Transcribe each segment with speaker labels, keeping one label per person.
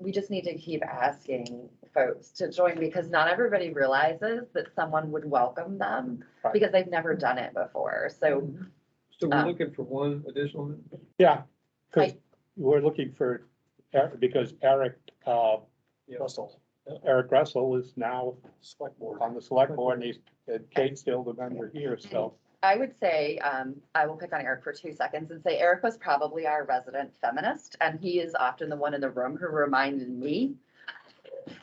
Speaker 1: we just need to keep asking folks to join because not everybody realizes that someone would welcome them
Speaker 2: Right.
Speaker 1: because they've never done it before. So
Speaker 3: So
Speaker 1: Uh,
Speaker 3: we're looking for one additional, member?
Speaker 2: Yeah, because
Speaker 1: I-
Speaker 2: we're looking for, Eric- because Eric, uh,
Speaker 4: Russell,
Speaker 2: Eric Russell is now
Speaker 4: select board.
Speaker 2: on the select board and he's, and Kate's still the member here, so.
Speaker 1: I would say, um, I will pick on Eric for two seconds and say Eric was probably our resident feminist, and he is often the one in the room who reminded me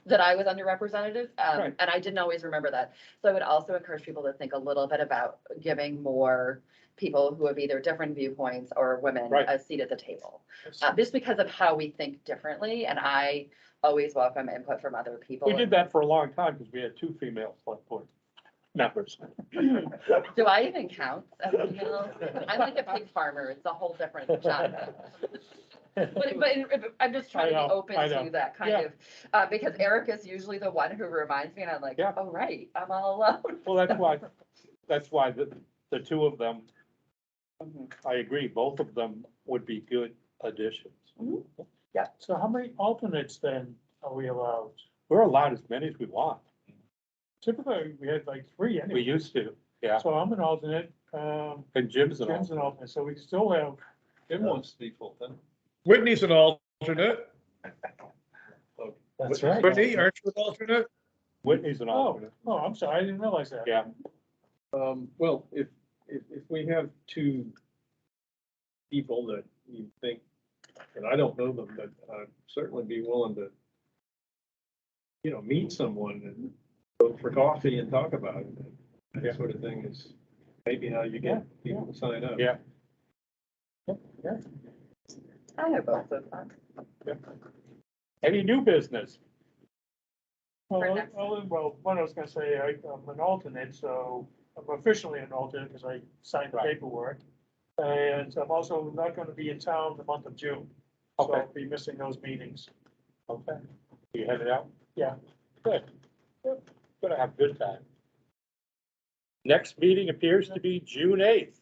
Speaker 1: that I was underrepresented, um,
Speaker 2: Right.
Speaker 1: and I didn't always remember that. So I would also encourage people to think a little bit about giving more people who have either different viewpoints or women
Speaker 2: Right.
Speaker 1: a seat at the table. uh, just because of how we think differently, and I always welcome input from other people.
Speaker 2: We did that for a long time because we had two female select board members.
Speaker 1: Do I even count as female? I'm like a pig farmer, it's a whole different genre. But, but in- but I'm just trying to
Speaker 2: I
Speaker 1: be
Speaker 2: know,
Speaker 1: open
Speaker 2: I
Speaker 1: to
Speaker 2: know.
Speaker 1: that kind
Speaker 2: Yeah.
Speaker 1: of, uh, because Eric is usually the one who reminds me, and I'm like,
Speaker 2: Yeah.
Speaker 1: oh, right, I'm all alone.
Speaker 2: Well, that's why, that's why the, the two of them,
Speaker 1: Mhm.
Speaker 2: I agree, both of them would be good additions.
Speaker 4: So how many alternates then are we allowed?
Speaker 2: We're allowed as many as we want.
Speaker 4: Typically, we had like three
Speaker 2: We
Speaker 4: anyway.
Speaker 2: used to, yeah.
Speaker 4: So I'm an alternate, um,
Speaker 2: And Jim's an
Speaker 4: Jim's
Speaker 2: alternate.
Speaker 4: an alternate, so we still have,
Speaker 3: Jim wants to be full time.
Speaker 5: Whitney's an alternate.
Speaker 4: that's right.
Speaker 5: Whitney, aren't you an alternate?
Speaker 2: Whitney's an
Speaker 4: Oh,
Speaker 2: alternate.
Speaker 4: oh, I'm sorry, I didn't realize that.
Speaker 2: Yeah.
Speaker 3: Um, well, if, if, if we have two people that you think, and I don't know them, but I'd certainly be willing to, you know, meet someone and go for coffee and talk about it.
Speaker 2: Yeah.
Speaker 3: That sort of thing is maybe how you get people to sign up.
Speaker 2: Yeah.
Speaker 1: I know both of them.
Speaker 2: Any new business?
Speaker 4: Well,
Speaker 1: For
Speaker 4: I-
Speaker 1: next-
Speaker 4: well, well, what I was gonna say, I, I'm an alternate, so I'm officially an alternate because I signed the
Speaker 2: Right.
Speaker 4: paperwork. And I'm also not gonna be in town the month of June, so
Speaker 2: Okay.
Speaker 4: I'll be missing those meetings.
Speaker 2: Okay. You headed out?
Speaker 4: Yeah.
Speaker 2: Good. Good. Gonna have a good time. Next meeting appears to be June eighth.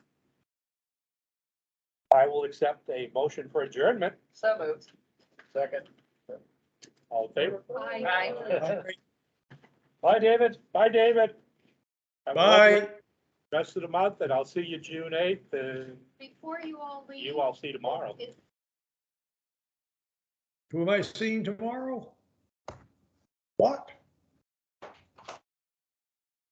Speaker 2: I will accept a motion for adjournment.
Speaker 1: So moved.
Speaker 2: Second. All in favor?
Speaker 1: Bye.
Speaker 2: Bye, David. Bye, David. Have a lovely
Speaker 5: Bye.
Speaker 2: Rest of the month, and I'll see you June eighth, and
Speaker 6: Before you all leave.
Speaker 2: you all see tomorrow.
Speaker 6: is-
Speaker 5: Who am I seeing tomorrow? What?